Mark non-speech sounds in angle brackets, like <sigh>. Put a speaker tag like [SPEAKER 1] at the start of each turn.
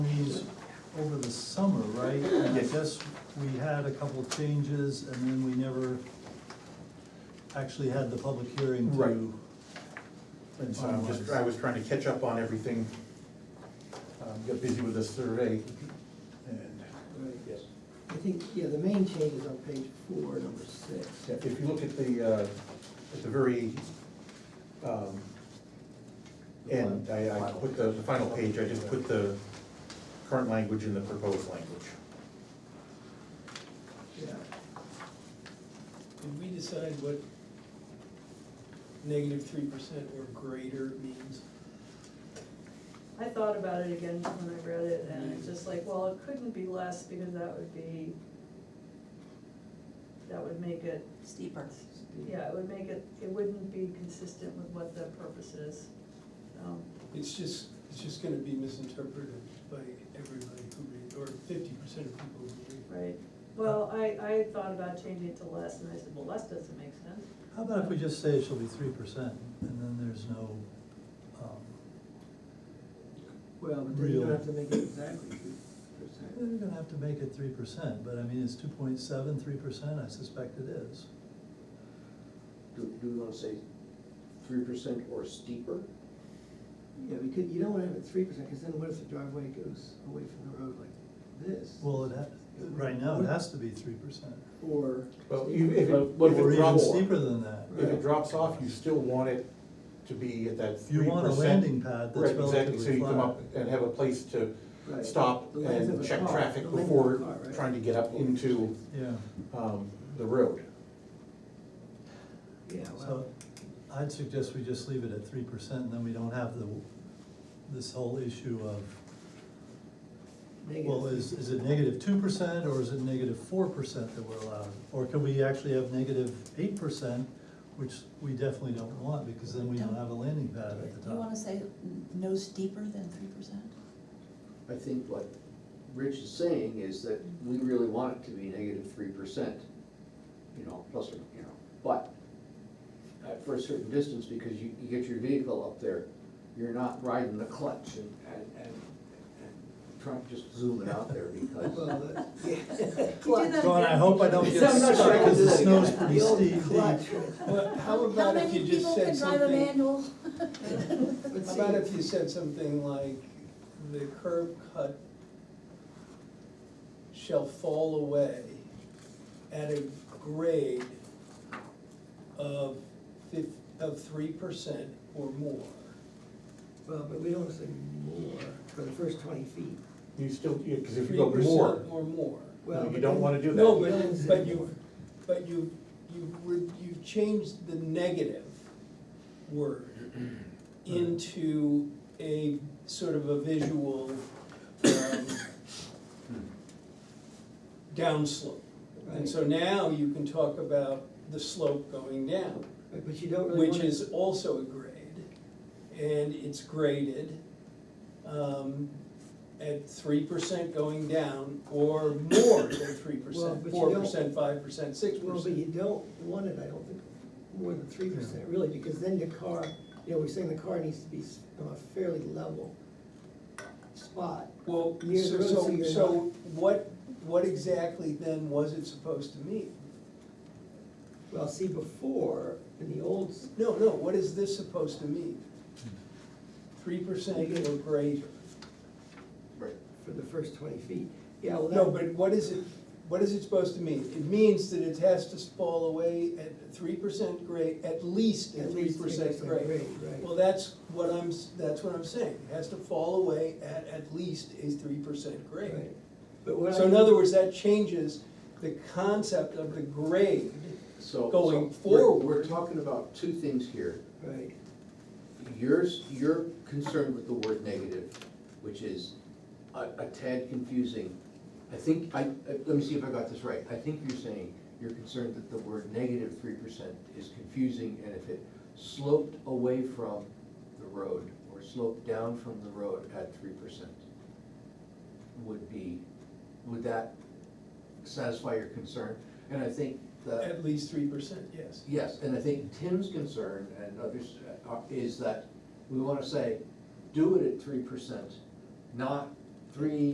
[SPEAKER 1] over the summer, right? And I
[SPEAKER 2] Yes.
[SPEAKER 1] guess we had a couple of changes and then we never actually had the public hearing to.
[SPEAKER 2] Right. And so I'm just,
[SPEAKER 1] finalize.
[SPEAKER 2] I was trying to catch up on everything. Um, Got busy with the survey and
[SPEAKER 3] Right. I think, yeah, the main change is on page four, number six.
[SPEAKER 2] yeah, if you look at the, uh, at the very, um, end, I, I put the, the final page, I just put the current language in the proposed language.
[SPEAKER 3] Yeah,
[SPEAKER 4] Did we decide what negative three percent or greater means?
[SPEAKER 5] I thought about it again when I read it, and it's just like, well, it couldn't be less, because that would be, that would make it,
[SPEAKER 6] steeper.
[SPEAKER 5] yeah, it would make it, it wouldn't be consistent with what the purpose is. Um,
[SPEAKER 4] It's just, it's just gonna be misinterpreted by everybody who read, or fifty percent of people who read.
[SPEAKER 5] Right, well, I, I thought about changing it to less, and I said, well, less doesn't make sense.
[SPEAKER 1] How about if we just say it shall be three percent and then there's no, um,
[SPEAKER 3] well, but then you don't
[SPEAKER 1] Real.
[SPEAKER 3] have to make it exactly three
[SPEAKER 1] we're
[SPEAKER 3] percent.
[SPEAKER 1] gonna have to make it three percent, but I mean, it's two point seven, three percent, I suspect it is.
[SPEAKER 7] Do, do we wanna say three percent or steeper?
[SPEAKER 3] Yeah, we could, you don't wanna have it three percent, because then what if the driveway goes away from the road like this?
[SPEAKER 1] Well, it ha, right now, it has to be three percent.
[SPEAKER 3] Or.
[SPEAKER 2] Well, you- if it,
[SPEAKER 7] But what
[SPEAKER 2] if
[SPEAKER 7] if
[SPEAKER 2] it
[SPEAKER 1] Or even
[SPEAKER 2] drops,
[SPEAKER 1] steeper than that.
[SPEAKER 2] if it drops off, you still want it to be at that three
[SPEAKER 1] You
[SPEAKER 2] percent.
[SPEAKER 1] want a landing pad that's
[SPEAKER 2] Right, exactly, so
[SPEAKER 1] relatively
[SPEAKER 2] you come
[SPEAKER 1] flat.
[SPEAKER 2] up and have a place to
[SPEAKER 3] Right.
[SPEAKER 2] stop
[SPEAKER 3] The length of
[SPEAKER 2] and
[SPEAKER 3] a
[SPEAKER 2] check
[SPEAKER 3] car,
[SPEAKER 2] traffic
[SPEAKER 3] the length of a car,
[SPEAKER 2] before
[SPEAKER 3] right.
[SPEAKER 2] trying to get up into,
[SPEAKER 1] Yeah,
[SPEAKER 2] um, the road.
[SPEAKER 3] Yeah, well,
[SPEAKER 1] so I'd suggest we just leave it at three percent, and then we don't have the, this whole issue of,
[SPEAKER 3] negative.
[SPEAKER 1] well, is, is it negative two percent, or is it negative four percent that we're allowed? Or can we actually have negative eight percent, which we definitely don't want, because then we don't have a landing pad at the
[SPEAKER 6] You wanna
[SPEAKER 1] top.
[SPEAKER 6] say n- no steeper than three percent?
[SPEAKER 7] I think what Rich is saying is that we really want it to be negative three percent, you know, plus or, you know, but uh, for a certain distance, because you, you get your vehicle up there, you're not riding the clutch and, and, and, and trying to just zoom it out there
[SPEAKER 3] Well,
[SPEAKER 7] because.
[SPEAKER 3] that-
[SPEAKER 1] John, I hope I
[SPEAKER 3] <laughs>
[SPEAKER 1] don't get
[SPEAKER 7] I'm
[SPEAKER 1] stuck,
[SPEAKER 7] not sure I can
[SPEAKER 1] because
[SPEAKER 7] do
[SPEAKER 1] the
[SPEAKER 7] that
[SPEAKER 1] snow's
[SPEAKER 7] again.
[SPEAKER 1] pretty
[SPEAKER 3] The old
[SPEAKER 1] steep.
[SPEAKER 3] clutch.
[SPEAKER 4] Well, how about if you just said
[SPEAKER 6] How many
[SPEAKER 4] something,
[SPEAKER 6] people can
[SPEAKER 1] <laughs>
[SPEAKER 6] drive a manual?
[SPEAKER 3] Let's
[SPEAKER 4] how
[SPEAKER 3] see.
[SPEAKER 4] about if you said something like, the curb cut shall fall away at a grade of fif, of three percent or more?
[SPEAKER 3] Well, but we don't say more for the first twenty feet.
[SPEAKER 2] You still, because if you
[SPEAKER 4] Three
[SPEAKER 2] go
[SPEAKER 4] percent
[SPEAKER 2] more,
[SPEAKER 4] Or more.
[SPEAKER 3] Well,
[SPEAKER 2] no, you
[SPEAKER 3] but
[SPEAKER 2] don't
[SPEAKER 3] then-
[SPEAKER 2] wanna do that.
[SPEAKER 4] No,
[SPEAKER 3] You don't
[SPEAKER 4] but,
[SPEAKER 3] say
[SPEAKER 4] but you,
[SPEAKER 3] more.
[SPEAKER 4] but you, you, re- you've changed the negative
[SPEAKER 2] <clears throat>
[SPEAKER 4] word into a sort of a visual, um,
[SPEAKER 2] Hmm.
[SPEAKER 4] downslope. And so now you can talk about the slope going down,
[SPEAKER 3] Right, But you don't really
[SPEAKER 4] which
[SPEAKER 3] wanna.
[SPEAKER 4] is also a grade, and it's graded, um, at three percent going down, or more than three
[SPEAKER 3] <coughs> Well,
[SPEAKER 4] percent,
[SPEAKER 3] but you
[SPEAKER 4] four
[SPEAKER 3] don't-
[SPEAKER 4] percent, five percent, six
[SPEAKER 3] Well, but you
[SPEAKER 4] percent.
[SPEAKER 3] don't want it, I don't think, more than three percent really, because then the car, you know, we're saying the car needs to be s- on a fairly level spot.
[SPEAKER 4] Well,
[SPEAKER 3] Near the
[SPEAKER 4] so,
[SPEAKER 3] road, so
[SPEAKER 4] so,
[SPEAKER 3] you're
[SPEAKER 4] so what, what exactly then was it supposed to mean?
[SPEAKER 3] Well, see, before, in the old, s-
[SPEAKER 4] No, no, what is this supposed to mean? Three percent or greater?
[SPEAKER 7] Right.
[SPEAKER 3] for the first twenty feet, yeah, well, that.
[SPEAKER 4] No, but what is it, what is it supposed to mean? It means that it has to fall away at three percent grade, at least at
[SPEAKER 3] At
[SPEAKER 4] three
[SPEAKER 3] least
[SPEAKER 4] percent
[SPEAKER 3] 3%
[SPEAKER 4] grade.
[SPEAKER 3] grade, right.
[SPEAKER 4] Well, that's what I'm, s- that's what I'm saying, it has to fall away at at least a three percent grade.
[SPEAKER 3] Right. But what I.
[SPEAKER 4] So in other words, that changes the concept of the grade,
[SPEAKER 7] So. so
[SPEAKER 4] Going
[SPEAKER 7] we're- We're
[SPEAKER 4] forward.
[SPEAKER 7] talking about two things here.
[SPEAKER 3] Right,
[SPEAKER 7] Yours, you're concerned with the word negative, which is a a tad confusing. I think, I, I- let me see if I got this right. I think you're saying you're concerned that the word negative three percent is confusing and if it sloped away from the road or sloped down from the road at three percent would be, would that satisfy your concern? And I think that.
[SPEAKER 4] at least three percent, yes.
[SPEAKER 7] Yes, and I think Tim's concern and others uh, is that we wanna say, do it at three percent, not three